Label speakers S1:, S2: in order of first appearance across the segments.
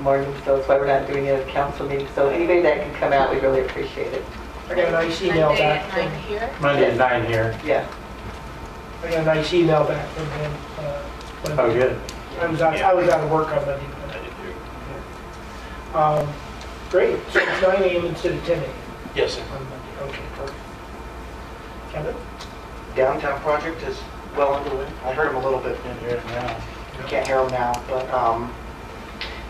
S1: morning, so that's why we're not doing it at a council meeting. So anybody that can come out, we really appreciate it.
S2: I got a nice email
S3: Monday
S2: back
S3: at
S2: from,
S3: nine here?
S4: Monday at nine here.
S1: Yeah.
S2: I got a nice email back from him. uh, when-
S4: Oh, good.
S2: I was out, I was out of work on Monday. Um, Great, so it's 9 AM instead of 10 AM
S5: Yes, sir.
S2: on Monday, okay, perfect. Kevin?
S6: downtown project is well underway. I heard him a little bit in here now. I Can't hear him now, but um,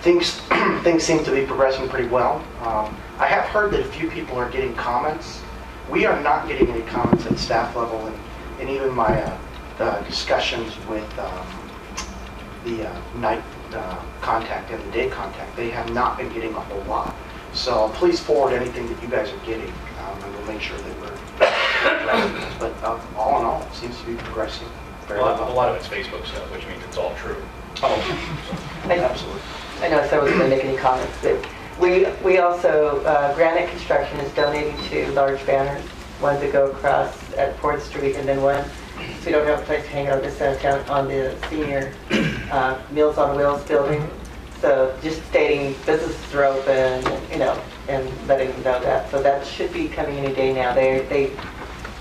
S6: things, things seem to be progressing pretty well. Um, I have heard that a few people are getting comments. We are not getting any comments at staff level, and and even my uh, uh, discussions with um, the uh, night uh, contact and the day contact, they have not been getting a whole lot. So please forward anything that you guys are getting, um, and we'll make sure that we're but um, all in all, it seems to be progressing
S5: A
S6: very
S5: lot, a
S6: well.
S5: lot of it's Facebook stuff, which means it's all true.
S1: I
S6: Absolutely.
S1: I know someone was going to make any comments, but we, we also, uh, Granite Construction is donating two large banners, one to go across at Ford Street and then one, so we don't have a place to hang out this side of town on the senior uh, Meals on Wheels building. So just stating businesses are open, you know, and letting them know that. So that should be coming any day now. They, they,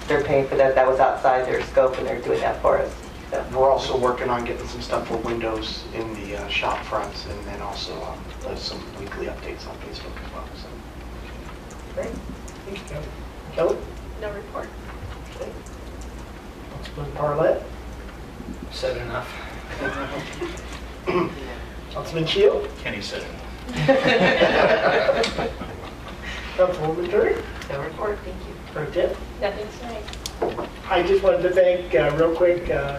S1: they're paying for that. That was outside their scope and they're doing that for us, so.
S6: And We're also working on getting some stuff for windows in the uh, shop fronts and then also um, there's some weekly updates on Facebook as well. so.
S2: Great, thank you, Kevin. Kelly?
S3: No report.
S2: Councilman Parlet?
S7: Said enough.
S2: Councilman Keel?
S5: Kenny said it.
S2: Councilwoman Turner?
S3: No report, thank you.
S2: Pro Tem?
S3: Nothing tonight.
S2: I just wanted to thank, uh, real quick, uh,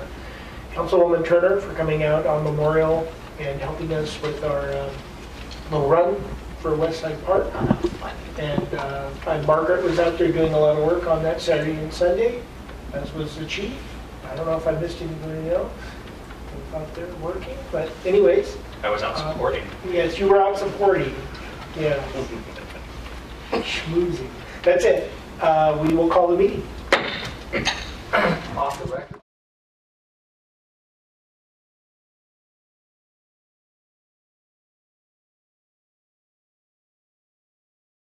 S2: Councilwoman Turner for coming out on Memorial and helping us with our um, little run for West Side Park. And uh, and Margaret was out there doing a lot of work on that Saturday and Sunday, as was the chief. I don't know if I missed anybody else who was out there working, but anyways,
S5: I was out supporting.
S2: yes, you were out supporting, yeah. Schmoozing. That's it. Uh, We will call the meeting.
S7: Off the record.